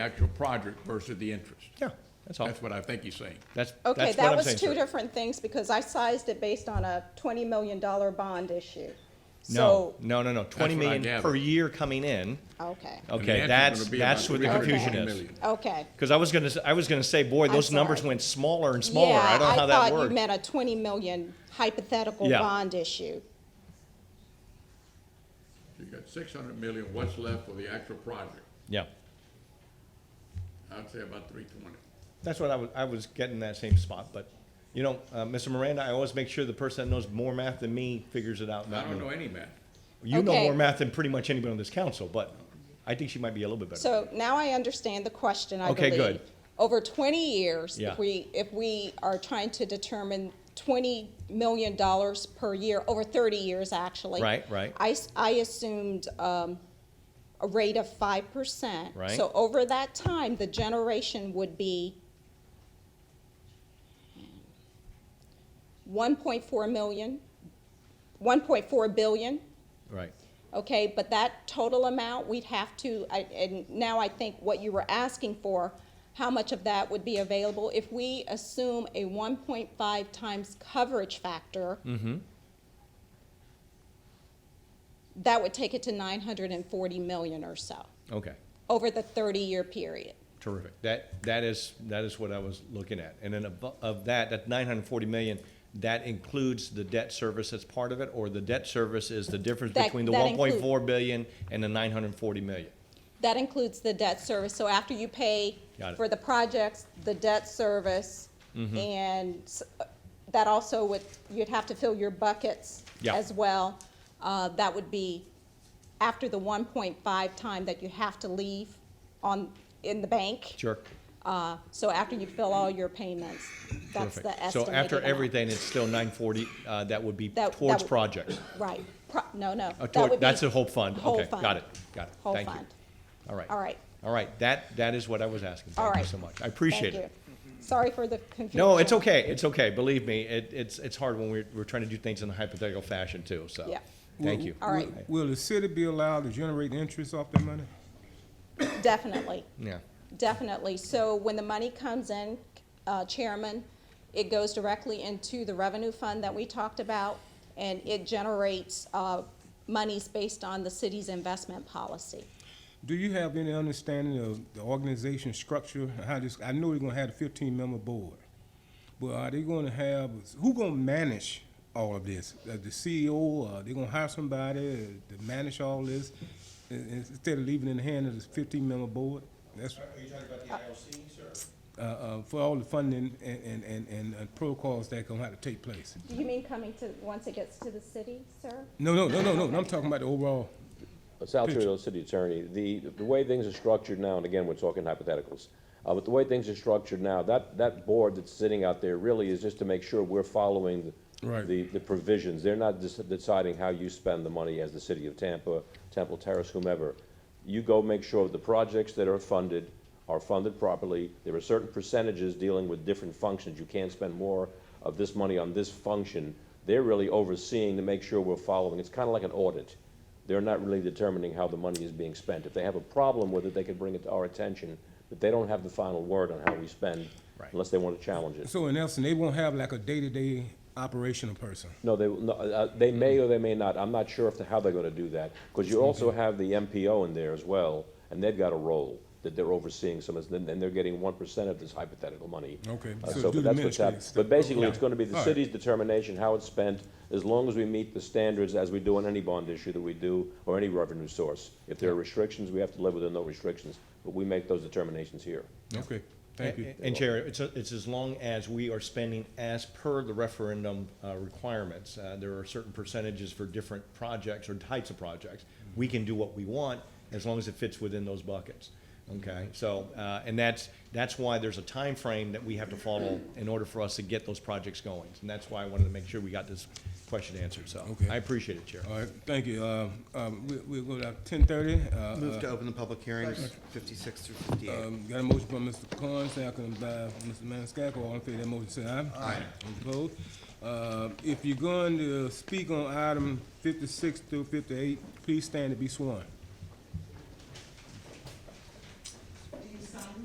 actual project versus the interest. Yeah, that's all. That's what I think he's saying. That's, Okay, that's what that I'm was saying, two sir. different things because I sized it based on a twenty million dollar bond issue. No, So, no, no, no, twenty what I million per gathered. year coming in. okay, And the Okay, answer's that's, gonna be that's about what the 350 confusion is. million. okay. Because I was gonna, s- I was gonna say, boy, I'm those numbers sorry. went smaller and smaller. Yeah, I don't know how that thought you worked. meant a twenty million hypothetical Yeah. bond issue. You got six hundred million, what's left for the actual project? Yeah, I'd say about three twenty. that's what I was, I was getting that same spot, but, you know, uh, Mr. Miranda, I always make sure the person that knows more math than me figures it out, I not don't know me. any math. You know Okay. more math than pretty much anybody on this council, but I think she might be a little bit better. So now I understand the question, I Okay, believe. good. Over twenty years, Yeah. if we, if we are trying to determine twenty million dollars per year, over thirty years, actually. Right, right. I, s- I assumed, um, a rate of five percent. Right. So over that time, the generation would be one point four million, one point four billion. Right, Okay, but that total amount, we'd have to, I- and now I think what you were asking for, how much of that would be available? If we assume a 1.5 times coverage factor, that would take it to 940 million or so, okay. over the 30-year period. Terrific. That, that is, that is what I was looking at. And then of, of that, that nine hundred and forty million, that includes the debt service that's part of it, or the debt service is the difference That- between the that one point include- four billion and the nine hundred and forty million? That includes the debt service, so after you pay Got it. Mm-hmm. for the projects, the debt service, and s- that also would, you'd have to fill your buckets Yeah. as well. Uh, That would be after the 1.5 time that you have to leave on, in the bank. Sure. Uh, So after you fill all your payments, that's Terrific. the estimated So after amount. everything, it's still nine forty, uh, that would be That- that towards would- projects. Right, Pro- no, no. Uh, That toward- would be That's a whole fund. whole Okay, fund. got it, got it. Whole Thank you. fund. All right. All right. All right, that, that is what I was asking. All Thank you right. so much. I Thank appreciate it. you. Sorry for the confusion. No, it's okay. It's okay. Believe me, it, it's it's hard when we're, we're trying to do things in a hypothetical fashion too. So, Yeah. thank Will- you. All right. will- Will the city be allowed to generate interest off that money? Definitely. Yeah, Definitely. So when the money comes in, uh, Chairman, it goes directly into the revenue fund that we talked about, and it generates uh, monies based on the city's investment policy. Do you have any understanding of the organization structure? and How this, I know we are gonna have a fifteen member board, but are they gonna have, who gonna manage all of this? Uh, The CEO, uh, they gonna hire somebody to manage all this i- i- instead of leaving it in the hand of this fifteen member board? That's, Are you talking about the IOC, sir? uh, uh, for all the funding and, and, and, and uh, protocols that gonna have to take place. Do you mean coming to, once it gets to the city, sir? No, no, no, no, no, I'm talking about the overall, Sal Tirado, city attorney, the, the way things are structured now, and again, we're talking hypotheticals, uh, but the way things are structured now, that, that board that's sitting out there really is just to make sure we're following Right. the, the provisions. They're not dis- deciding how you spend the money as the city of Tampa, Temple Terrace, whomever. You go make sure the projects that are funded are funded properly. There are certain percentages dealing with different functions. You can't spend more of this money on this function. They're really overseeing to make sure we're following. It's kind of like an audit they're not really determining how the money is being spent. If they have a problem with it, they can bring it to our attention, but they don't have the final word on how we spend Right. unless they want to challenge it. so in essence, they won't have like a day-to-day operational person. No, they, no, uh, they may or they may not. I'm not sure if, how they're going to do that, because you also have the MPO in there as well, and they've got a role that they're overseeing some of this, and then they're getting one percent of this hypothetical money. Okay, Uh, so So do the that's what's ministry happening. stuff. But basically, it's Yeah. going to be the All right. city's determination how it's spent, as long as we meet the standards as we do on any bond issue that we do, or any revenue source. If there are restrictions, we have to live within those restrictions, but we make those determinations here. Okay, thank you. And- And Chair, it's, a- it's as long as we are spending as per the referendum uh, requirements. Uh, There are certain percentages for different projects or types of projects. We can do what we want as long as it fits within those buckets. Okay, so, uh, and that's, that's why there's a time frame that we have to follow in order for us to get those projects going. And that's why I wanted to make sure we got this question answered, so. Okay. I appreciate it, Chair. All right, thank you. Uh, um, we- We'll go to ten thirty. Uh, Move to open the public hearings, 56 through 58. um, Got a motion by Mr. Khan, second by Mr. Maniscalco. All in favor of that motion, say aye. Aye. Opposed? Uh, If you're going to speak on item fifty-six through fifty-eight, please stand to be sworn.